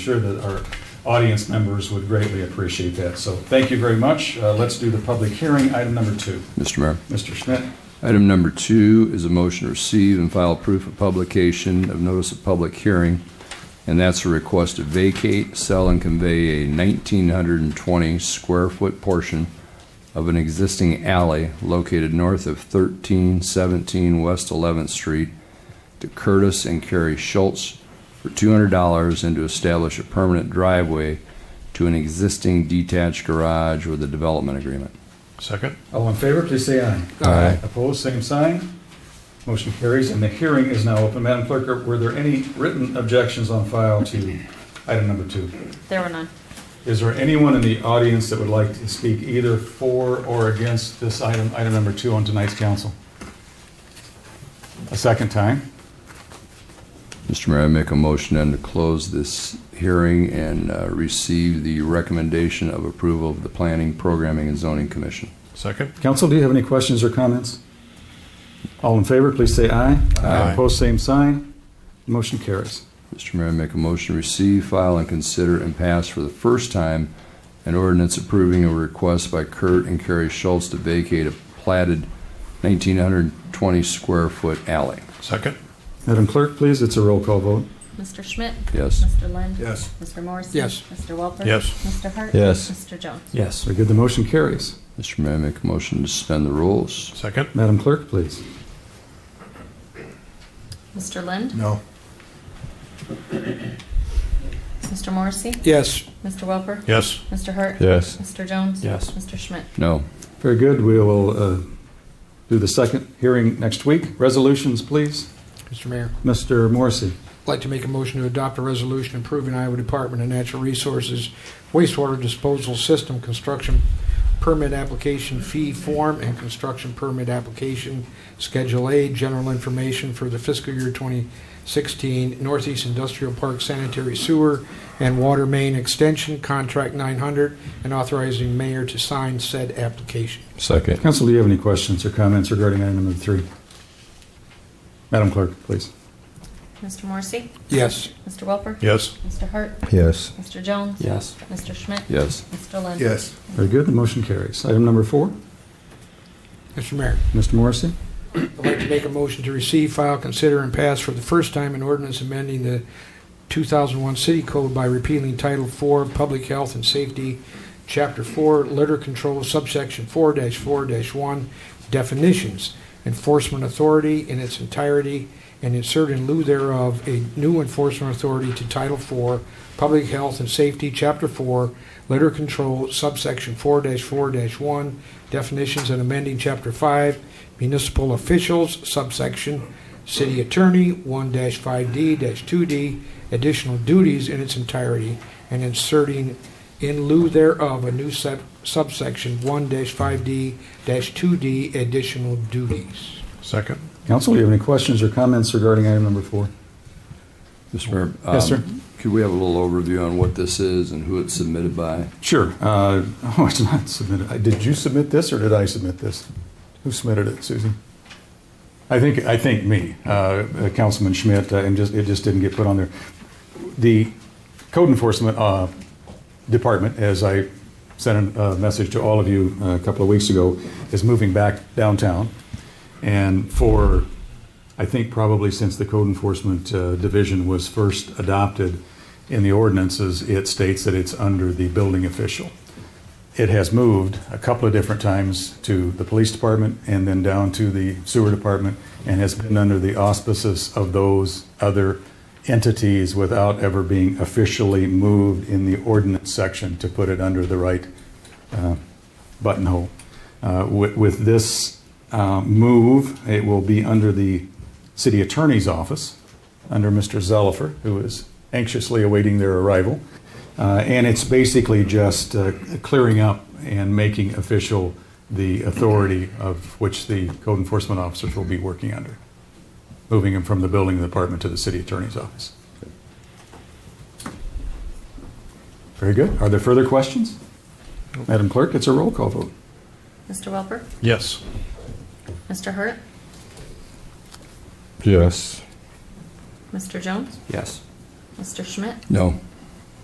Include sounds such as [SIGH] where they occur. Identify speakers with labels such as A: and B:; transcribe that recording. A: sure that our audience members would greatly appreciate that. So thank you very much. Uh, Let's do the public hearing, item number two.
B: Mr. Mayor.
A: Mr. Schmidt,
B: Item number two is a motion to receive and file proof of publication of notice of public hearing, and that's a request to vacate, sell, and convey a 1,920 square foot portion of an existing alley located north of 1317 West 11th Street to Curtis and Carrie Schultz for $200 and to establish a permanent driveway to an existing detached garage with a development agreement.
C: Second?
A: all in favor, please say aye.
B: Aye.
A: Opposed, same sign. Motion carries, and the hearing is now open. Madam Clerk, are- were there any written objections on file to item number two?
D: There were none.
A: Is there anyone in the audience that would like to speak either for or against this item, item number two on tonight's council? A second time?
B: Mr. Mayor, I make a motion then to close this hearing and uh, receive the recommendation of approval of the Planning, Programming, and Zoning Commission.
C: Second?
A: Council, do you have any questions or comments? All in favor, please say aye.
C: Aye.
A: Opposed, same sign. Motion carries.
B: Mr. Mayor, I make a motion to receive, file, and consider and pass for the first time an ordinance approving a request by Kurt and Carrie Schultz to vacate a platted 1,920-square-foot alley.
C: Second?
A: Madam Clerk, please, it's a roll call vote.
D: Mr. Schmidt?
B: Yes.
D: Mr. Lind?
C: Yes.
D: Mr. Morrissey?
E: Yes.
D: Mr. Welper?
C: Yes.
D: Mr. Hart?
B: Yes.
D: Mr. Jones?
E: Yes.
A: Very good, the motion carries.
B: Mr. Mayor, I make a motion to suspend the rules.
C: Second?
A: Madam Clerk, please.
D: Mr. Lind?
C: No.
D: Mr. Morrissey?
E: Yes.
D: Mr. Welper?
C: Yes.
D: Mr. Hart?
B: Yes.
D: Mr. Jones?
E: Yes.
D: Mr. Schmidt?
B: No.
A: Very good, we will uh, do the second hearing next week. Resolutions, please.
E: Mr. Mayor,
A: Mr. Morrissey.
E: I'd like to make a motion to adopt a resolution approving Iowa Department of Natural Resources wastewater disposal system construction permit application fee form and construction permit application Schedule A, general information for the fiscal year 2016 Northeast Industrial Park sanitary sewer and water main extension, contract 900, and authorizing mayor to sign said application.
B: Second.
A: Council, do you have any questions or comments regarding item number three? Madam Clerk, please.
D: Mr. Morrissey?
E: Yes.
D: Mr. Welper?
C: Yes.
D: Mr. Hart?
B: Yes.
D: Mr. Jones?
E: Yes.
D: Mr. Schmidt?
B: Yes.
D: Mr. Lind?
A: Very good, the motion carries. Item number four,
E: Mr. Mayor.
A: Mr. Morrissey.
E: I'd like to make a motion to receive, file, consider, and pass for the first time an ordinance amending the 2001 City Code by repealing Title IV, Public Health and Safety, Chapter 4, Litter Control, subsection 4-4-1, definitions, enforcement authority in its entirety, and insert in lieu thereof a new enforcement authority to Title IV, Public Health and Safety, Chapter 4, Litter Control, subsection 4-4-1, definitions, and amending Chapter 5, municipal officials, subsection city attorney, 1-5D-2D, additional duties in its entirety, and inserting in lieu thereof a new sub- subsection 1-5D-2D, additional duties.
C: Second?
A: Council, do you have any questions or comments regarding item number four?
B: Mr. Mayor.
A: Yes, sir.
B: um, Could we have a little overview on what this is and who it's submitted by?
A: Sure. Uh, [LAUGHS] Oh, it's not submitted. I- Did you submit this or did I submit this? Who submitted it, Susan? I think, I think me, uh, uh, Councilman Schmidt, uh, and just, it just didn't get put on there. The code enforcement uh, department, as I sent a uh, message to all of you uh, a couple of weeks ago, is moving back downtown. And for, I think probably since the code enforcement uh, division was first adopted in the ordinances, it states that it's under the building official. It has moved a couple of different times to the police department and then down to the sewer department and has been under the auspices of those other entities without ever being officially moved in the ordinance section to put it under the right uh, buttonhole. Uh, With with this uh, move, it will be under the city attorney's office, under Mr. Zellifer, who is anxiously awaiting their arrival. Uh, And it's basically just uh, clearing up and making official the authority of which the code enforcement officers will be working under, moving them from the building department to the city attorney's office. Very good. Are there further questions? Madam Clerk, it's a roll call vote.
D: Mr. Welper?
C: Yes.
D: Mr. Hart?
B: Yes.
D: Mr. Jones?
E: Yes.
D: Mr. Schmidt?
B: No.